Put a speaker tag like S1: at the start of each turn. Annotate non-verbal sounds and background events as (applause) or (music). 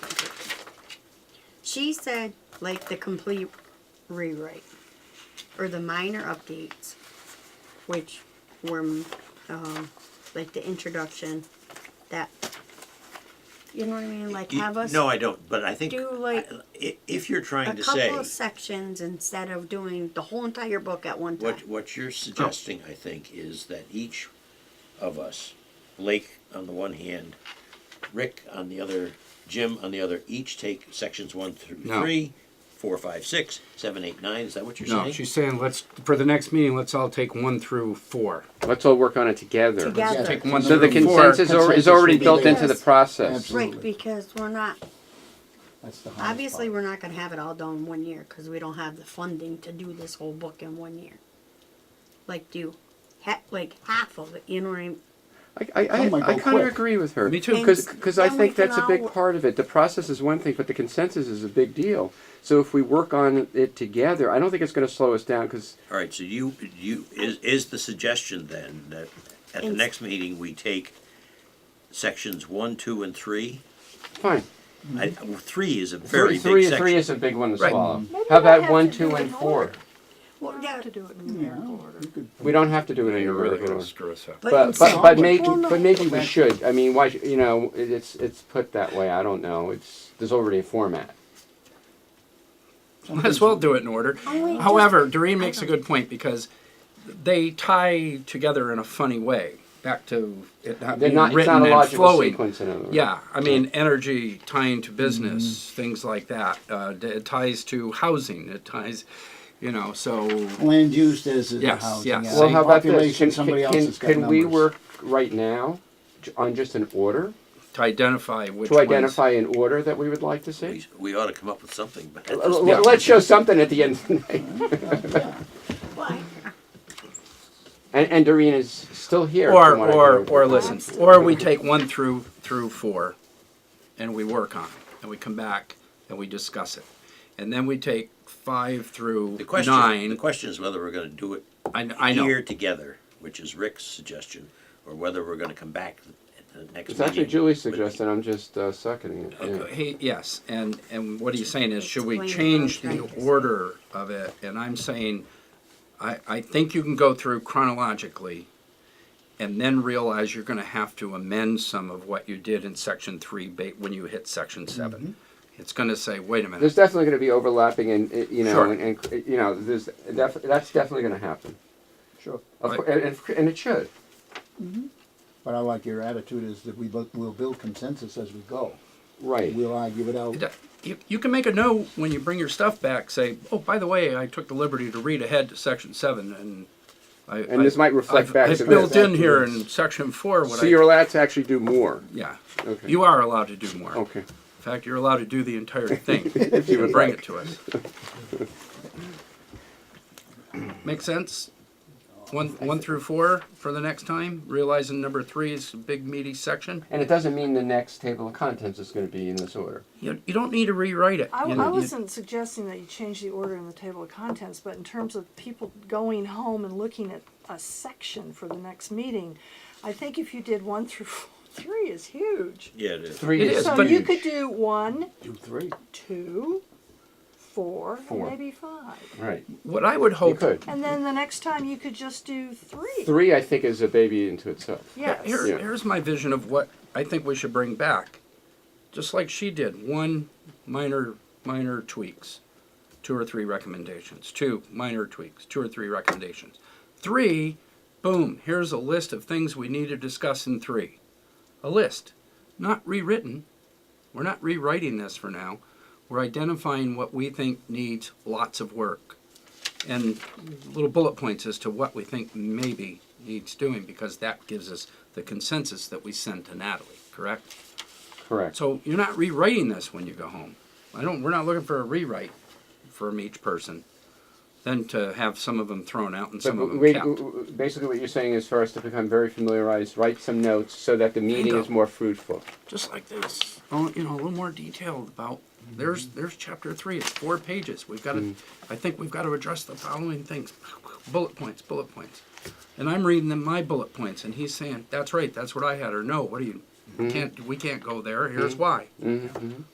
S1: She said like the complete rewrite or the minor updates, which were um, like the introduction. That you know what I mean? Like
S2: You-
S1: have us
S2: No, I don't, but I think,
S1: do, like,
S2: I- if you're
S1: a
S2: trying to
S1: couple
S2: say,
S1: of sections instead of doing the whole entire book at one time.
S2: what, what you're suggesting, I think, is that each of us, Blake on the one hand, Rick on the other, Jim on the other, each take sections one through
S3: No.
S2: three, four, five, six, seven, eight, nine, is that what you're
S3: No,
S2: saying?
S3: she's saying let's for the next meeting. Let's all take one through four.
S4: Let's all work on it together.
S1: Together.
S3: Take one
S4: So the
S3: through four.
S4: consensus, al- is
S5: Consensus
S4: already
S5: would be
S4: built into the
S1: there.
S4: process.
S1: Right, because we're not
S5: That's the hardest part.
S1: Obviously, we're not gonna have it all done in one year, cause we don't have the funding to do this whole book in one year. Like do, ha- like half of it, you know what I mean?
S4: I, I, I,
S5: Some might
S4: I
S5: go
S4: kind of
S5: quick.
S4: agree with her.
S3: Me too.
S1: And
S4: Because I
S1: then we
S4: think
S1: can
S4: that's a
S1: all
S4: big
S1: wo-
S4: part of it. The process is one thing, but the consensus is a big deal. So if we work on it together, I don't think it's going to slow us down because
S2: All right, so you, you, is, is the suggestion then that at the
S1: Ins-
S2: next meeting, we take sections one, two, and three?
S4: fine.
S2: I, three is a very
S4: three,
S2: big
S4: three, three
S2: section.
S4: is a big one to
S3: Right.
S4: swallow.
S6: Maybe
S4: How
S6: we don't
S4: about
S6: have
S4: one,
S6: to
S4: two,
S6: do it
S4: and
S6: in
S4: four?
S6: order.
S1: Well,
S6: We don't
S1: yeah,
S6: have to do it in numerical order.
S5: You could-
S4: We don't have to do it in a
S3: Really
S4: really
S3: gonna
S4: order.
S3: screw us up.
S4: But
S1: instead-
S4: but but
S5: Well,
S4: maybe
S1: no.
S4: but maybe we
S5: Back-
S4: should. I mean, why sh- you know it- it's it's put that way. I don't know. It's there's already a format.
S3: Might as well do it in order.
S1: Only just-
S3: However, Doreen makes a good point because they tie together in a funny way. Back to it not
S4: They're
S3: being
S4: not, it's
S3: written
S4: not a
S3: and
S4: logical
S3: flowing.
S4: sequence. In other words.
S3: Yeah, I mean, energy tying to business,
S1: Mm-hmm.
S3: things like that. Uh, d- it ties to housing. It ties, you know. So
S5: Land use is a
S3: Yes,
S5: housing.
S3: yes.
S5: yeah.
S4: Well,
S3: Same
S4: how about this?
S5: Population,
S4: Can,
S5: somebody
S4: can,
S5: else has got
S4: can we
S5: numbers.
S4: work right now j- on just an order
S3: to identify which
S4: to identify an order that we would like to see?
S2: We, we ought to come up with something, but.
S4: L- l- Let's show something at the end of the night.
S1: Why?
S4: And, and Doreen is still here.
S3: ones.
S4: from
S3: or
S4: what I
S3: or
S4: heard.
S3: or listen,
S1: Absolutely.
S3: or we take one through through four, and we work on it, and we come back and we discuss it, and then we take five through
S2: The question,
S3: nine.
S2: the question is whether we're going to do it
S3: I, kn- I know.
S2: here together, which is Rick's suggestion, or whether we're going to come back at the next.
S4: It's actually
S2: meeting
S4: Julie
S2: with-
S4: suggested. I'm just uh, seconding it. yeah.
S3: He, yes, and, and what he's saying is, should we
S1: Explain
S3: change
S1: what I'm
S3: the
S1: trying to say.
S3: order of it? And I'm saying, I, I think you can go through chronologically and then realize you're gonna have to amend some of what you did in section three, ba- when you hit section seven. It's gonna say, wait a
S4: There's
S3: minute,
S4: definitely going to be overlapping, and uh, you know,
S3: Sure.
S4: and, and uh, you know, there's def- that's definitely going to happen.
S5: Sure.
S4: Of
S3: Right.
S4: cour- and, and- and it should.
S5: But I like your attitude is that we, bu- we'll build consensus as we go.
S4: Right.
S5: We'll argue it out.
S3: That- you, you can make a note when you bring your stuff back, say, oh, by the way, I took the liberty to read ahead to section seven and I.
S4: And
S3: I-
S4: this might reflect
S3: I've-
S4: back
S3: I
S4: to
S3: built
S4: this.
S3: in here in section four what
S4: So
S3: I.
S4: you're allowed to actually do more.
S3: Yeah.
S4: Okay.
S3: You are allowed to do more.
S4: Okay.
S3: In fact, you're allowed to do the
S4: (laughs)
S3: entire thing if you would bring it to us. Make sense? One, one through four for the next time, realizing number three is a big meaty section.
S4: And it doesn't mean the next table of contents is going to be in this order.
S3: You, you don't need to rewrite it.
S6: I,
S3: You
S6: I
S3: know, you-
S6: wasn't suggesting that you change the order in the table of contents, but in terms of people going home and looking at a section for the next meeting, I think if you did one through (laughs) four, three is huge.
S2: Yeah, it is.
S4: Three
S3: It
S4: is
S3: is,
S6: so
S3: but-
S6: you
S4: huge.
S6: could do one,
S5: Do three.
S6: two, four,
S4: Four.
S6: and maybe five.
S4: Right.
S3: What I would
S4: You
S3: hope,
S4: could.
S6: And then the next time you could just do three.
S4: Three, I think, is a baby into itself.
S6: Yes.
S3: here,
S4: Yeah.
S3: here's my vision of what I think we should bring back. Just like she did, one minor, minor tweaks, two or three recommendations, two minor tweaks, two or three recommendations. Three, boom, here's a list of things we need to discuss in three. A list, not rewritten. We're not rewriting this for now. We're identifying what we think needs lots of work and little bullet points as to what we think maybe needs doing because that gives us the consensus that we send to Natalie, correct?
S4: Correct.
S3: So you're not rewriting this when you go home. I don't, we're not looking for a rewrite from each person, then to have some of them thrown out and
S4: but
S3: some of them
S4: we-
S3: kept.
S4: basically, what you're saying is for us to become very familiarized, write some notes so that the meeting
S3: Bingo.
S4: is more fruitful.
S3: just like this. Oh, you know, a little more detailed about. There's there's chapter three. It's four pages. We've got to. I think we've got to address the following things. Bullet points. Bullet points. And I'm reading them my bullet points, and he's saying, "That's right. That's what I had." Or no, what do you? Can't we can't go there? Here's why.